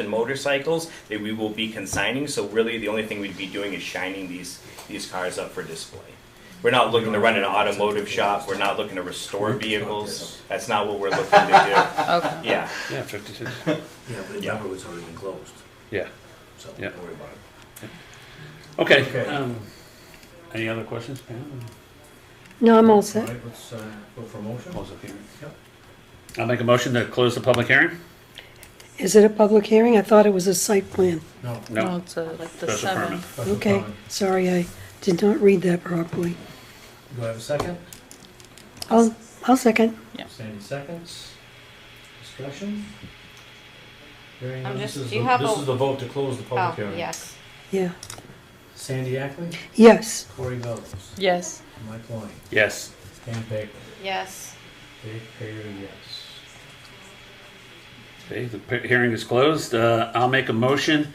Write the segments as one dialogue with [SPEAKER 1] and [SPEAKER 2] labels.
[SPEAKER 1] and motorcycles that we will be consigning, so really the only thing we'd be doing is shining these, these cars up for display. We're not looking to run an automotive shop, we're not looking to restore vehicles, that's not what we're looking to
[SPEAKER 2] Okay.
[SPEAKER 1] do. Yeah,
[SPEAKER 3] Yeah, fifty-six,
[SPEAKER 4] Yeah, but remember, it's already been closed,
[SPEAKER 3] yeah,
[SPEAKER 4] so
[SPEAKER 3] Yeah.
[SPEAKER 4] don't worry about it.
[SPEAKER 3] okay,
[SPEAKER 4] Okay.
[SPEAKER 3] um, any other questions, Pam?
[SPEAKER 5] No, I'm all
[SPEAKER 4] All
[SPEAKER 5] set.
[SPEAKER 4] right, let's, uh, go for a motion.
[SPEAKER 3] Close the hearing.
[SPEAKER 4] Yep.
[SPEAKER 3] I'll make a motion to close the public hearing?
[SPEAKER 5] Is it a public hearing? I thought it was a site plan.
[SPEAKER 4] No.
[SPEAKER 3] No,
[SPEAKER 2] Well, it's uh, like the
[SPEAKER 3] Special permit.
[SPEAKER 2] seventh.
[SPEAKER 4] special
[SPEAKER 5] Okay,
[SPEAKER 4] comment.
[SPEAKER 5] sorry, I did not read that properly.
[SPEAKER 4] Do I have a second?
[SPEAKER 5] I'll, I'll second.
[SPEAKER 4] Sandy seconds. Discussion? Hearing
[SPEAKER 6] I'm
[SPEAKER 4] none.
[SPEAKER 6] just-
[SPEAKER 4] This is
[SPEAKER 6] do you
[SPEAKER 4] the-
[SPEAKER 6] have
[SPEAKER 4] This
[SPEAKER 6] a-
[SPEAKER 4] is the vote to close the public
[SPEAKER 6] Oh,
[SPEAKER 4] hearing.
[SPEAKER 6] yes.
[SPEAKER 5] Yeah.
[SPEAKER 4] Sandy Ackley,
[SPEAKER 5] Yes.
[SPEAKER 4] Corey Wells,
[SPEAKER 2] Yes.
[SPEAKER 4] Mike Loin,
[SPEAKER 3] yes,
[SPEAKER 4] Dan Baker,
[SPEAKER 6] Yes.
[SPEAKER 4] Dave Payer, yes.
[SPEAKER 3] okay, the pe- hearing is closed, uh, I'll make a motion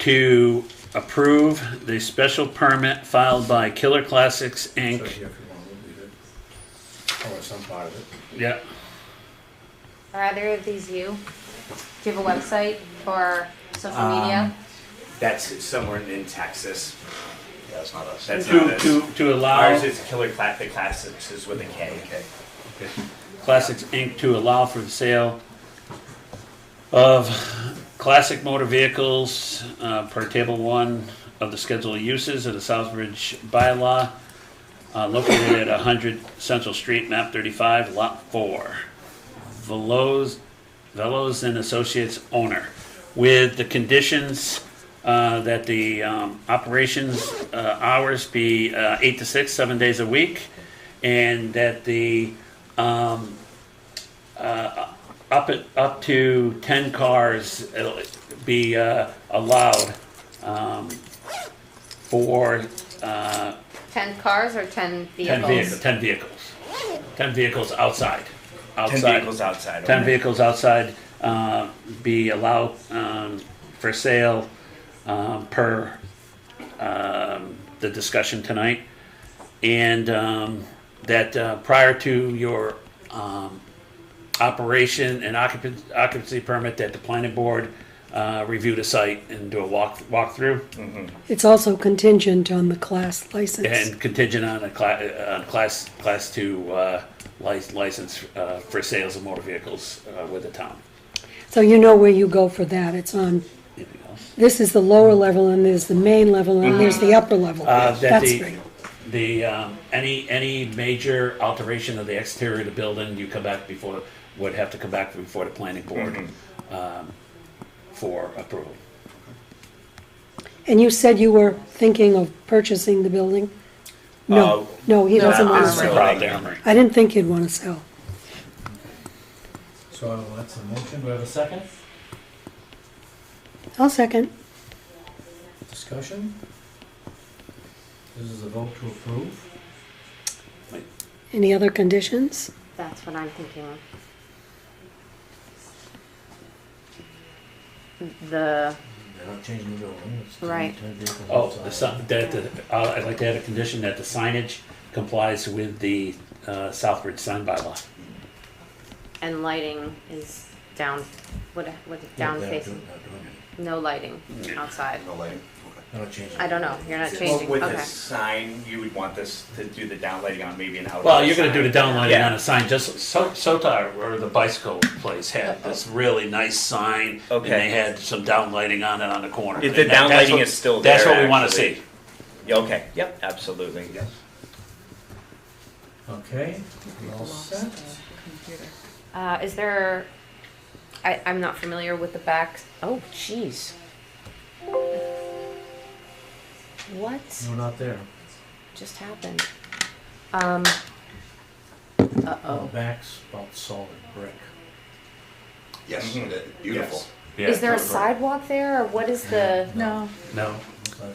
[SPEAKER 3] to approve the special permit filed by Killer Classics
[SPEAKER 4] So here
[SPEAKER 3] Inc.
[SPEAKER 4] if you want, we'll leave it.
[SPEAKER 1] Oh,
[SPEAKER 4] Or some part of it.
[SPEAKER 3] Yeah,
[SPEAKER 6] Are either of these you? Do you have a website or social media?
[SPEAKER 1] that's somewhere in Texas,
[SPEAKER 7] Yeah, it's not us.
[SPEAKER 1] that's not
[SPEAKER 3] to,
[SPEAKER 1] us.
[SPEAKER 3] to, to allow
[SPEAKER 1] Ours is Killer Clack, the Classics is with a K.
[SPEAKER 3] Classics Inc. to allow for the sale of classic motor vehicles uh, per Table 1 of the Schedule of Uses of the Southbridge bylaw uh, located at 100 Central Street, map 35, lot 4. Velos, Velos and Associates owner, with the conditions uh, that the um, operations uh, hours be uh, 8 to 6, seven days a week, and that the um, uh, up at, up to ten cars uh, be uh, allowed um, for uh,
[SPEAKER 6] Ten cars or ten
[SPEAKER 3] ten
[SPEAKER 6] vehicles?
[SPEAKER 3] vehicles. Ten vehicles. Ten vehicles outside.
[SPEAKER 1] Ten
[SPEAKER 3] Outside.
[SPEAKER 1] vehicles outside.
[SPEAKER 3] Ten
[SPEAKER 1] okay.
[SPEAKER 3] vehicles outside uh, be allowed um, for sale um, per um, the discussion tonight. And um, that uh, prior to your um, operation and occupancy, occupancy permit, that the planning board uh, review the site and do a walk walkthrough
[SPEAKER 5] It's also contingent on the class license.
[SPEAKER 3] and contingent on a cla- uh, on class class two uh, lic- license uh, for sales of motor vehicles uh, with the town.
[SPEAKER 5] So you know where you go for that. It's on,
[SPEAKER 3] Anything else?
[SPEAKER 5] this is the lower level and there's the main level and there's the upper level.
[SPEAKER 3] Mm-hmm. Uh, that
[SPEAKER 5] That's
[SPEAKER 3] the,
[SPEAKER 5] great.
[SPEAKER 3] the, um, any, any major alteration of the exterior of the building, you come back before, would have to come back before the planning board, um, for approval.
[SPEAKER 5] And you said you were thinking of purchasing the building? No,
[SPEAKER 1] Uh,
[SPEAKER 5] no, he
[SPEAKER 6] No,
[SPEAKER 5] doesn't want to
[SPEAKER 6] it's
[SPEAKER 5] sell.
[SPEAKER 6] not.
[SPEAKER 3] Proud Armory.
[SPEAKER 5] I didn't think he'd want to sell.
[SPEAKER 4] So I will that's a motion. Do I have a second?
[SPEAKER 5] I'll second.
[SPEAKER 4] Discussion? This is a vote to approve.
[SPEAKER 5] Any other conditions?
[SPEAKER 6] That's what I'm thinking of. The,
[SPEAKER 4] They're not changing the building. It's ten-
[SPEAKER 6] Right.
[SPEAKER 4] ten vehicles
[SPEAKER 3] Oh,
[SPEAKER 4] outside.
[SPEAKER 3] the si- that, the- uh, I'd like to add a condition that the signage complies with the, uh, Southbridge sign bylaw.
[SPEAKER 6] and lighting is down, what, what,
[SPEAKER 4] Yeah,
[SPEAKER 6] down
[SPEAKER 4] they're not
[SPEAKER 6] facing?
[SPEAKER 4] doing- not doing it.
[SPEAKER 6] No lighting outside.
[SPEAKER 7] No lighting, okay.
[SPEAKER 4] They're not changing
[SPEAKER 6] I
[SPEAKER 4] it.
[SPEAKER 6] don't know, you're not
[SPEAKER 4] Well,
[SPEAKER 1] Well,
[SPEAKER 6] changing,
[SPEAKER 1] with the
[SPEAKER 6] okay.
[SPEAKER 1] sign, you would want this to do the downlighting on maybe an outdoor.
[SPEAKER 3] Well, you're gonna do
[SPEAKER 1] sign.
[SPEAKER 3] the downlighting
[SPEAKER 1] Yeah.
[SPEAKER 3] on a sign, just so Sotar or the bicycle place had this really nice sign, and
[SPEAKER 1] Okay.
[SPEAKER 3] they had some downlighting on it on the corner.
[SPEAKER 1] If the
[SPEAKER 3] And that- that's
[SPEAKER 1] downlighting
[SPEAKER 3] what-
[SPEAKER 1] is still
[SPEAKER 3] That's
[SPEAKER 1] there,
[SPEAKER 3] what we wanna
[SPEAKER 1] actually.
[SPEAKER 3] see.
[SPEAKER 1] Yeah, Okay, yep, absolutely. Yes.
[SPEAKER 4] Okay, we all set?
[SPEAKER 6] Uh, is there, I, I'm not familiar with the back, oh, jeez. What?
[SPEAKER 4] No, not there.
[SPEAKER 6] just happened? Um. Uh
[SPEAKER 4] The
[SPEAKER 6] oh.
[SPEAKER 4] back's about solid brick.
[SPEAKER 7] Yes,
[SPEAKER 1] Mhm.
[SPEAKER 7] that- beautiful.
[SPEAKER 1] Yes.
[SPEAKER 6] Is there a sidewalk there, or what is the?
[SPEAKER 2] No.
[SPEAKER 3] No,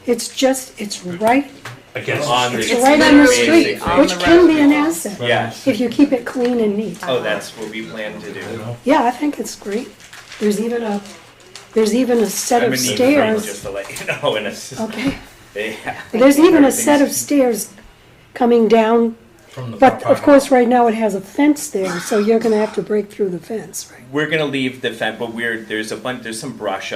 [SPEAKER 5] It's just, it's right,
[SPEAKER 3] against the
[SPEAKER 1] On
[SPEAKER 3] street.
[SPEAKER 5] it's
[SPEAKER 1] It's
[SPEAKER 5] right on the
[SPEAKER 1] literally
[SPEAKER 5] street,
[SPEAKER 1] on
[SPEAKER 5] which
[SPEAKER 2] the
[SPEAKER 5] can be an
[SPEAKER 2] road.
[SPEAKER 5] asset
[SPEAKER 1] Yeah.
[SPEAKER 5] if you keep it clean and neat.
[SPEAKER 1] Oh, that's what we plan to
[SPEAKER 4] You
[SPEAKER 1] do.
[SPEAKER 4] know?
[SPEAKER 5] Yeah, I think it's great. There's even a, there's even a set
[SPEAKER 1] I'm
[SPEAKER 5] of
[SPEAKER 1] in need of rain, Just
[SPEAKER 5] stairs.
[SPEAKER 1] to let you know, and it's,
[SPEAKER 5] Okay,
[SPEAKER 1] yeah.
[SPEAKER 5] there's even a set of stairs coming down,
[SPEAKER 4] From the
[SPEAKER 5] but
[SPEAKER 4] property.
[SPEAKER 5] of course, right now it has a fence there, so you're gonna have to break through the fence, right?
[SPEAKER 1] We're gonna leave the fence, but we're, there's a bunch, there's some brush